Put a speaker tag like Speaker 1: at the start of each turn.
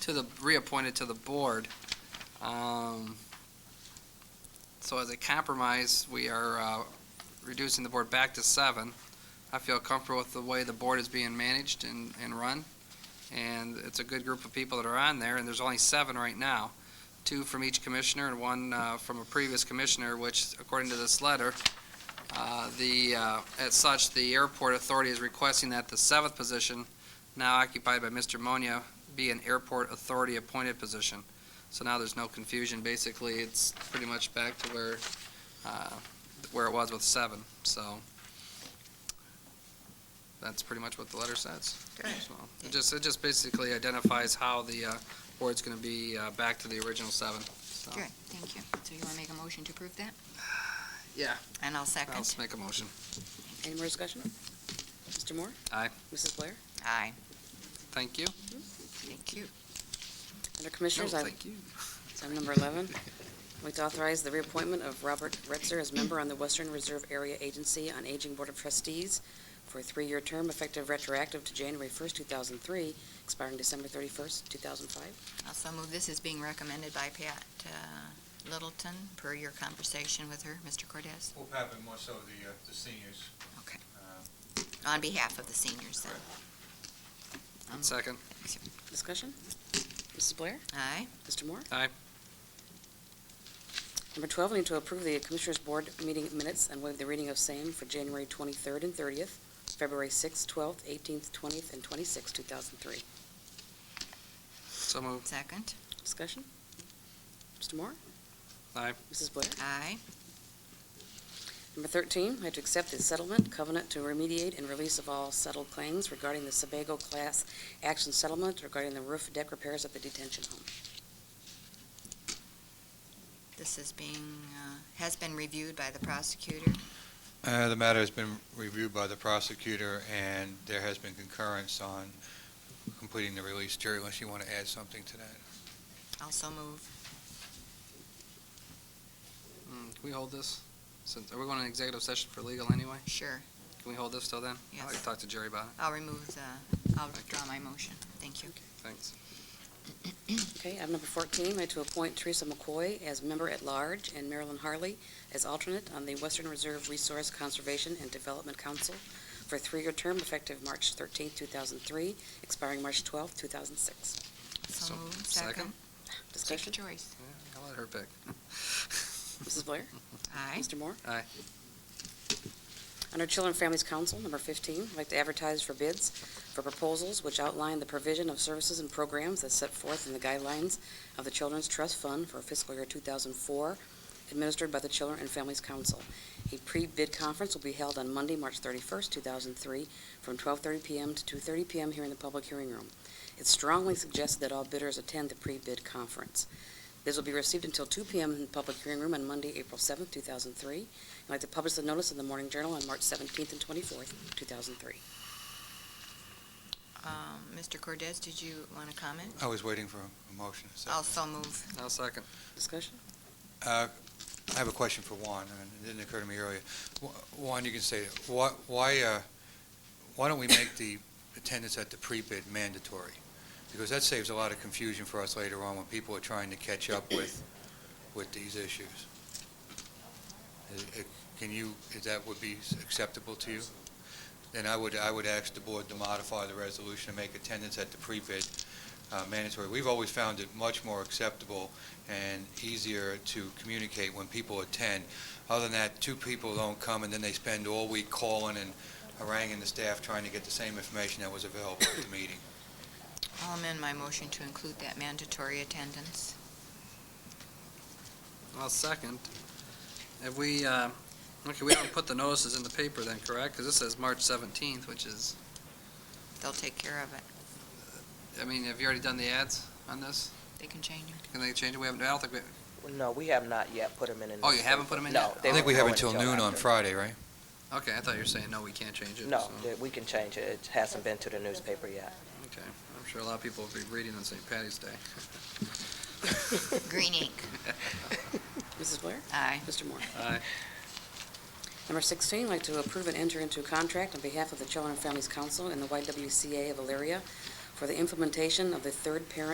Speaker 1: to the, reappointed to the board. Um, So as a compromise, we are uh, reducing the board back to seven. I feel comfortable with the way the board is being managed and, and run, and it's a good group of people that are on there, and there's only seven right now. Two from each commissioner and one uh, from a previous commissioner, which according to this letter, uh, the, uh, as such, the airport authority is requesting that the seventh position, now occupied by Mr. Monia, be an airport authority appointed position. So now there's no confusion. Basically, it's pretty much back to where, uh, where it was with seven, so. That's pretty much what the letter says.
Speaker 2: Okay.
Speaker 1: So, It just, it just basically identifies how the uh, board's going to be uh, back to the original seven, so.
Speaker 2: Good, thank you. So you want to make a motion to approve that?
Speaker 1: Yeah.
Speaker 2: And I'll
Speaker 1: I'll
Speaker 2: second.
Speaker 1: make a motion.
Speaker 3: Any more discussion? Mr. Moore?
Speaker 1: Aye.
Speaker 3: Mrs. Blair?
Speaker 2: Aye.
Speaker 1: Thank you.
Speaker 2: Thank you.
Speaker 3: Under Commissioners,
Speaker 1: No,
Speaker 3: item
Speaker 1: Thank you.
Speaker 3: item number 11, I'd like to authorize the reappointment of Robert Retzer as member on the Western Reserve Area Agency on Aging Board of Trustees for a three-year term effective retroactive to January 1st, 2003, expiring December 31st, 2005.
Speaker 2: Also move this is being recommended by Pat uh, Littleton, per your conversation with her, Mr. Cordes,
Speaker 4: We'll have it more so the, uh, the seniors.
Speaker 2: Okay.
Speaker 4: Uh,
Speaker 2: on behalf of the seniors then. Um,
Speaker 1: Second.
Speaker 3: Discussion? Mrs. Blair?
Speaker 2: Aye.
Speaker 3: Mr. Moore?
Speaker 1: Aye.
Speaker 3: Number 12, I need to approve the Commissioners' Board meeting minutes and waive the reading of same for January 23rd and 30th, February 6th, 12th, 18th, 20th, and 26th, 2003.
Speaker 1: So moved.
Speaker 2: Second.
Speaker 3: Discussion? Mr. Moore?
Speaker 1: Aye.
Speaker 3: Mrs. Blair?
Speaker 2: Aye.
Speaker 3: Number 13, I have to accept the settlement covenant to remediate and release of all settled claims regarding the Sebago class action settlement regarding the roof deck repairs at the detention home.
Speaker 2: This is being, uh, has been reviewed by the prosecutor.
Speaker 4: Uh, The matter has been reviewed by the prosecutor, and there has been concurrence on completing the release. Jerry, unless you want to add something to that?
Speaker 2: Also move.
Speaker 1: Mm, Can we hold this? Since, are we going to executive session for legal anyway?
Speaker 2: Sure.
Speaker 1: Can we hold this till then? I'd like
Speaker 2: Yes.
Speaker 1: to talk to Jerry about it.
Speaker 2: I'll remove the, I'll withdraw my motion. Thank you.
Speaker 1: Thanks.
Speaker 3: Okay, item number 14, I have to appoint Teresa McCoy as member-at-large and Marilyn Harley as alternate on the Western Reserve Resource Conservation and Development Council for a three-year term effective March 13th, 2003, expiring March 12th, 2006.
Speaker 2: So
Speaker 1: So-
Speaker 2: moved.
Speaker 1: second?
Speaker 2: Take your
Speaker 3: Discussion?
Speaker 2: choice.
Speaker 1: Yeah, I'll let her pick.
Speaker 3: Mrs. Blair?
Speaker 2: Aye.
Speaker 3: Mr. Moore?
Speaker 1: Aye.
Speaker 3: Under Children and Families Council, number 15, I'd like to advertise for bids for proposals which outline the provision of services and programs that's set forth in the guidelines of the Children's Trust Fund for fiscal year 2004, administered by the Children and Families Council. A pre-bid conference will be held on Monday, March 31st, 2003, from 12:30 PM to 2:30 PM here in the public hearing room. It's strongly suggested that all bidders attend the pre-bid conference. Bids will be received until 2 PM in the public hearing room on Monday, April 7th, 2003. I'd like to publish the notice in the Morning Journal on March 17th and 24th, 2003.
Speaker 2: Um, Mr. Cordes, did you want to comment?
Speaker 4: I was waiting for a motion. so-
Speaker 2: Also move.
Speaker 1: I'll second.
Speaker 3: Discussion?
Speaker 4: Uh, I have a question for Juan, and it didn't occur to me earlier. Wh- Juan, you can say, it. why, why uh, why don't we make the attendance at the pre-bid mandatory? Because that saves a lot of confusion for us later on when people are trying to catch up with, with these issues. Is- it- Can you, is that would be acceptable to you? Then I would, I would ask the board to modify the resolution and make attendance at the pre-bid uh, mandatory. We've always found it much more acceptable and easier to communicate when people attend. Other than that, two people don't come, and then they spend all week calling and haranguing the staff trying to get the same information that was available at the meeting.
Speaker 2: I'll amend my motion to include that mandatory attendance.
Speaker 1: I'll second. If we, uh, okay, we don't put the notices in the paper then, correct? Because this says March 17th, which is,
Speaker 2: They'll take care of it.
Speaker 1: I mean, have you already done the ads on this?
Speaker 2: They can change it.
Speaker 1: Can they change it? We haven't, I don't think we,
Speaker 5: No, we have not yet put them in.
Speaker 1: Oh, you haven't put 'em in
Speaker 5: No.
Speaker 1: yet?
Speaker 5: they
Speaker 1: I
Speaker 4: I think
Speaker 5: won't
Speaker 4: we have
Speaker 5: go in
Speaker 4: until noon on
Speaker 5: after.
Speaker 4: Friday, right?
Speaker 1: okay, I thought you were saying, no, we can't change it.
Speaker 5: No,
Speaker 1: so,
Speaker 5: that we can change it. It hasn't been to the newspaper yet.
Speaker 1: Okay, I'm sure a lot of people will be reading on St. Patty's Day.
Speaker 2: Green ink.
Speaker 3: Mrs. Blair?
Speaker 2: Aye.
Speaker 3: Mr. Moore?
Speaker 1: Aye.
Speaker 3: Number 16, I'd like to approve and enter into a contract on behalf of the Children and Families Council and the YWCA of Elyria for the implementation of the Third Parent